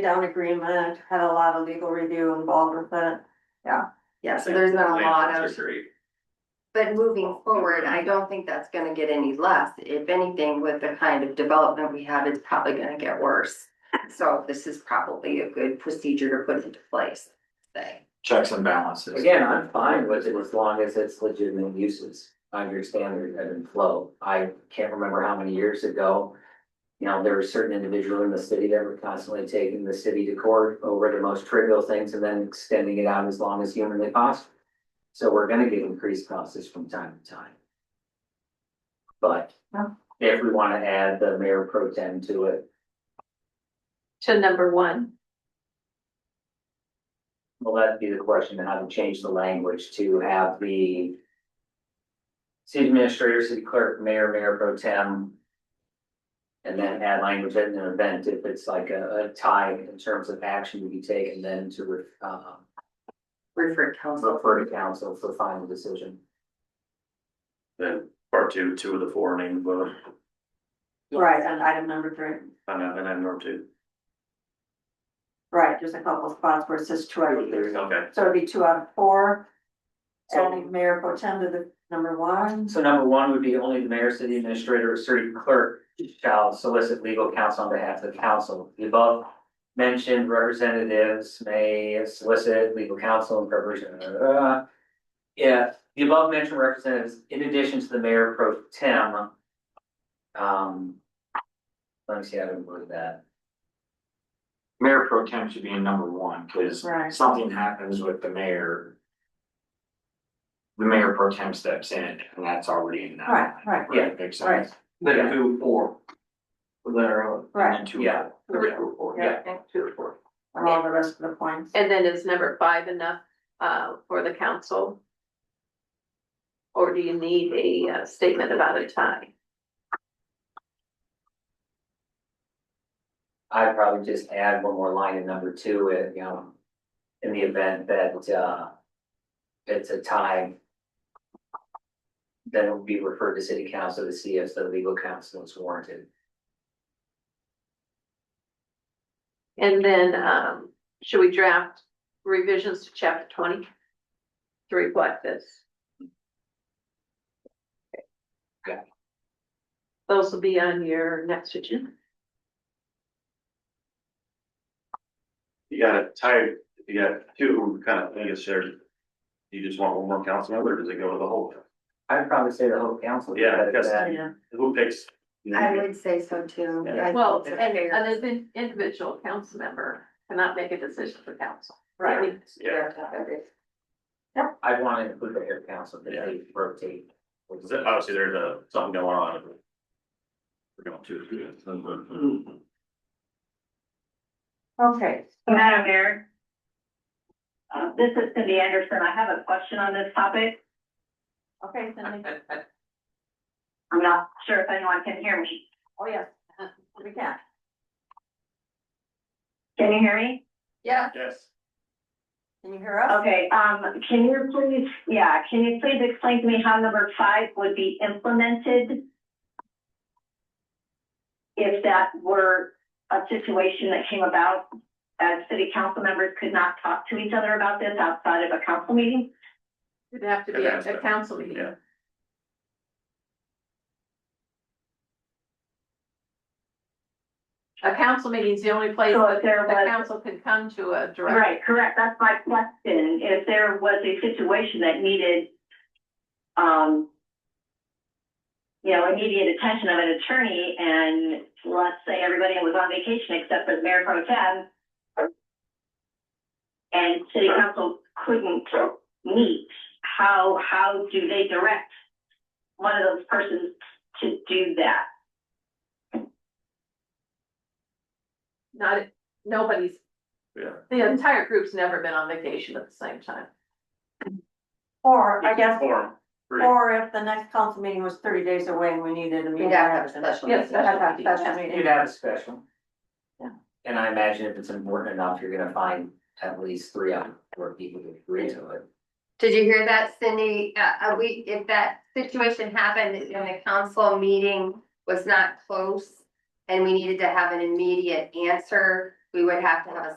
down agreement, had a lot of legal review involved with it. Yeah, so there's not a lot Landfills are of, Great, but moving forward, I don't think that's gonna get any less. If anything, with the kind of development we have, it's probably gonna get worse. So this is probably a good procedure to put into place, say. checks and balances. Again, I'm fine with it as long as it's legitimate uses, I understand there's ebb and flow, I can't remember how many years ago. You know, there were certain individuals in the city that were constantly taking the city to court over the most trivial things and then extending it out as long as humanly possible. So we're gonna get increased costs from time to time. But Yeah. if we wanna add the mayor pro tem to it, to number one. Well, that'd be the question, how to change the language to have the. City administrator, city clerk, mayor, mayor pro tem. And then add language at an event if it's like a, a tie in terms of action to be taken, then to, re- uh, Refer to council. refer to council for final decision. then part two, two of the four named uh, vote, Right, and item number three, and then item number two. right, there's a couple spots where it says two out of three. Okay, So it'd be two out of four, So, adding mayor pro tem to the number one. so number one would be only the mayor, city administrator, or city clerk shall solicit legal counsel on behalf of the council. The above mentioned representatives may solicit legal counsel in preparation. uh, If the above mentioned representatives, in addition to the mayor pro tem. Um. Let me see how to word that. Mayor pro tem should be in number one, cause Right. something happens with the mayor. The mayor pro tem steps in and that's already in that. Right, right. Right, makes Right. sense. Then two, four. Literally. Right. two. Yeah. Two, four, yeah. Two, four. And all the rest of the points. And then is number five enough uh for the council? Or do you need a uh, statement about a tie? I'd probably just add one more line in number two, uh, you know, in the event that, uh, it's a tie. Then it would be referred to city council to see if the legal counsel is warranted. And then um should we draft revisions to chapter twenty? To reflect this? Okay. Yeah. Those will be on your next agenda. you got a tie, you got two, kind of, I guess, shared. You just want one more council member, or does it go to the whole? I'd probably say the whole council. Yeah, but because- that- Yeah, Who picks? I would say so too. Yeah. I think Well, the and mayor- an in- individual council member cannot make a decision for council. right. Yeah, I'd want to include the mayor council, that they rotate. 'cause obviously there's a, something going on. We're going to. Okay, Madam Mayor. Uh, this is Cindy Anderson. I have a question on this topic. okay, Cindy. I'm not sure if anyone can hear me. Oh, yes. We can. Can you hear me? Yeah. Yes. Can you hear us? Okay, um, can you please, yeah, can you please explain to me how number five would be implemented? If that were a situation that came about, as city council members could not talk to each other about this outside of a council meeting? It'd have to be a- Could a ask council meeting. Yeah. A council meeting's the only place So that if there the was- council can come to a direct. Right, correct, that's my question, if there was a situation that needed, um, you know, immediate attention of an attorney, and let's say everybody was on vacation except for the mayor pro tem, and city council couldn't meet, how, how do they direct one of those persons to do that? Not, nobody's, Yeah. the entire group's never been on vacation at the same time. Or I guess, Form. Three. or if the next council meeting was thirty days away and we needed a meeting. We'd have to have a special Yes, meeting. special meeting. Special You'd have a special. Yeah. And I imagine if it's important enough, you're gonna find at least three out of four people to agree to it. Did you hear that, Cindy? Uh, uh, we, if that situation happened and the council meeting was not close and we needed to have an immediate answer, we would have to have a